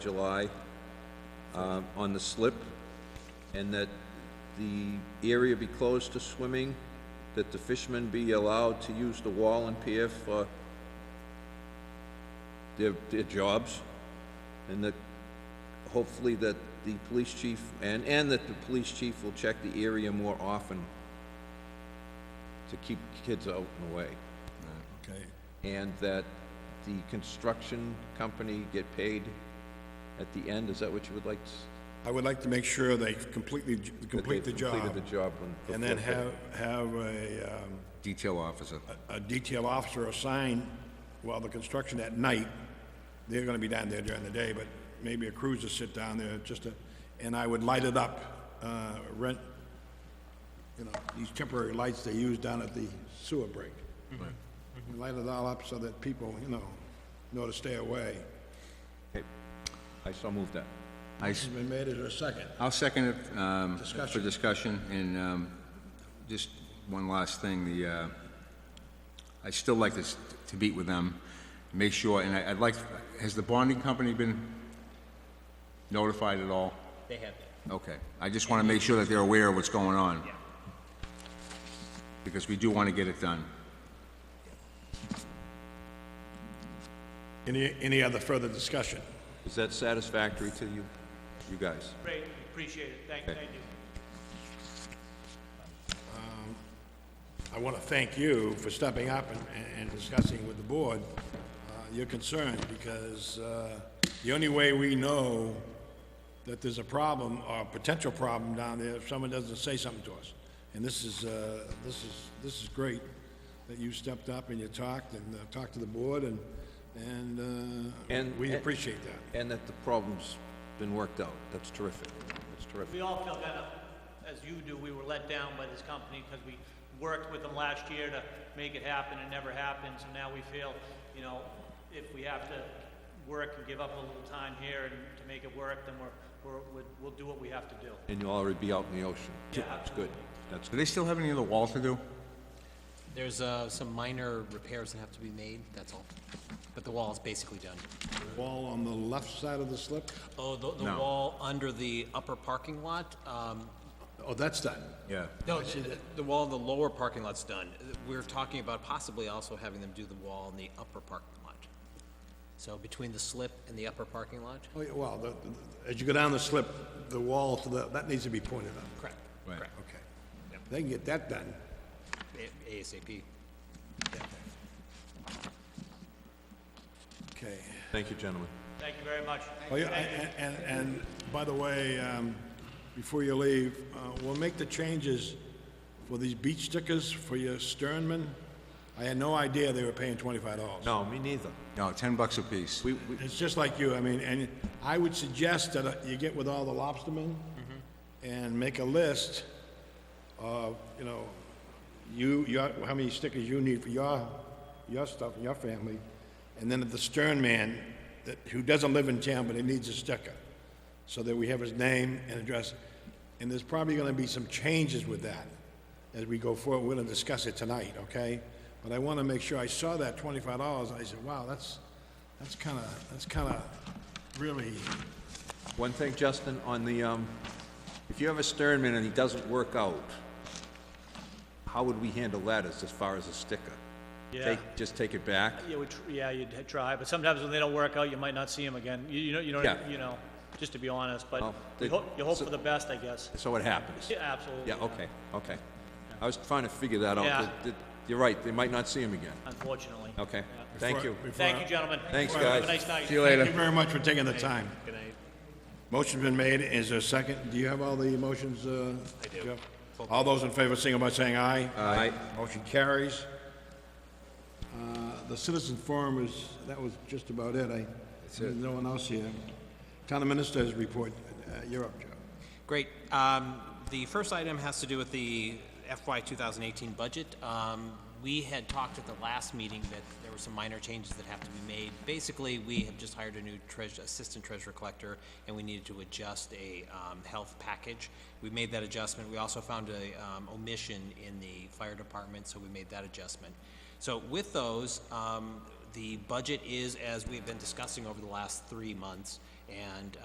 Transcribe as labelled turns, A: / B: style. A: July um, on the slip, and that the area be closed to swimming, that the fishermen be allowed to use the wall and pier for their, their jobs, and that hopefully that the police chief, and, and that the police chief will check the area more often to keep kids out and away.
B: Okay,
A: and that the construction company get paid at the end, is that what you would like? s-
B: I would like to make sure they completely,
A: that
B: complete the
A: they've
B: job,
A: Completed the job. when-
B: and then have, have a, um,
C: Detail officer.
B: a detail officer assigned while the construction at night. They're gonna be down there during the day, but maybe a crews to sit down there, just to, and I would light it up, uh, rent, you know, these temporary lights they use down at the sewer break. Light it all up so that people, you know, know to stay away.
A: Okay. I so moved that.
C: I, s-
B: Been made it a second.
C: I'll second it, um, for
B: Discussion.
C: discussion, and, um, just one last thing, the, uh, i still like this, to meet with them, make sure, and I, I'd like, has the bonding company been notified at all?
D: They have that.
C: Okay, I just wanna make sure that they're aware of what's going on.
D: Yeah.
C: Because we do wanna get it done.
B: Any, any other further discussion?
A: Is that satisfactory to you, you guys?
D: Great, appreciate it, thank,
A: Okay.
D: thank you.
B: I want to thank you for stepping up and, and discussing with the board uh, your concern, because uh, the only way we know that there's a problem, or a potential problem down there, if someone doesn't say something to us. And this is, uh, this is, this is great, that you stepped up and you talked, and uh, talked to the board, and, and uh,
A: And-
B: we appreciate that.
A: And that the problem's been worked out, that's terrific, that's terrific.
D: We all feel kind of, as you do, we were let down by this company because we worked with them last year to make it happen, it never happened, so now we feel, you know, if we have to work and give up a little time here and to make it work, then we're, we're, we'll- we'll do what we have to do.
A: And you'll already be out in the ocean.
D: Yeah,
A: That's good, that's
C: Do
A: good.
C: they still have any other wall to do?
E: There's uh, some minor repairs that have to be made, that's all. But the wall is basically done.
B: Wall on the left side of the slip,
E: Oh, the, the wall under the upper parking lot, um,
B: oh, that's done.
C: Yeah.
E: no, the- the wall in the lower parking lot's done. We're talking about possibly also having them do the wall in the upper parking lot. So between the slip and the upper parking lot?
B: Oh, yeah, well, the- the- as you go down the slip, the wall to the, that needs to be pointed up.
E: Correct.
C: Right.
E: correct.
B: Okay. They can get that done.
E: A- ASAP.
B: Okay.
A: Thank you, gentlemen.
D: Thank you very much.
B: Oh, yeah, and, and, and by the way, um, before you leave, uh, we'll make the changes for these beach stickers for your sternmen. I had no idea they were paying twenty-five dollars.
A: No, me neither.
C: No, ten bucks apiece.
A: We, we,
B: It's just like you, I mean, and I would suggest that uh, you get with all the lobstermen and make a list of, you know, you, your, how many stickers you need for your, your stuff, and your family, and then the stern man, that, who doesn't live in town, but he needs a sticker, so that we have his name and address, and there's probably gonna be some changes with that as we go forward, we're gonna discuss it tonight, okay? But I wanna make sure, I saw that twenty-five dollars, and I said, wow, that's, that's kinda, that's kinda really,
A: One thing, Justin, on the, um, if you have a sternman and he doesn't work out, how would we handle that as, as far as a sticker?
D: Yeah.
A: Take- Just take it back?
D: Yeah, we, tr- yeah, you'd h- try, but sometimes when they don't work out, you might not see them again, you, you know, you
A: Yeah.
D: don't, you know, just to be honest, but
A: Well,
D: you
A: they-
D: hope, you hope
A: so-
D: for the best, I guess.
A: So it happens?
D: Yeah, absolutely.
A: Yeah, okay, okay. I was trying to figure that out.
D: Yeah.
A: That- that- You're right, they might not see him again.
D: Unfortunately.
A: Okay, thank you.
D: Thank you, gentlemen.
A: Thanks,
D: Have
A: guys.
D: a nice night.
B: thank you very much for taking the time.
E: Good night.
B: Motion's been made, is there a second? Do you have all the motions, uh? I do. All those in favor, signal by saying aye.
A: Aye.
B: Motion carries. Uh, The citizen forum is, that was just about it, I, there's no one else here. Town Minister's report, Uh, you're up, Joe.
E: Great. Um, The first item has to do with the FY 2018 budget. Um, We had talked at the last meeting that there were some minor changes that have to be made. Basically, we have just hired a new treas- assistant treasurer collector, and we needed to adjust a um, health package. We made that adjustment. We also found a um, omission in the fire department, so we made that adjustment. So with those, um, the budget is, as we've been discussing over the last three months, and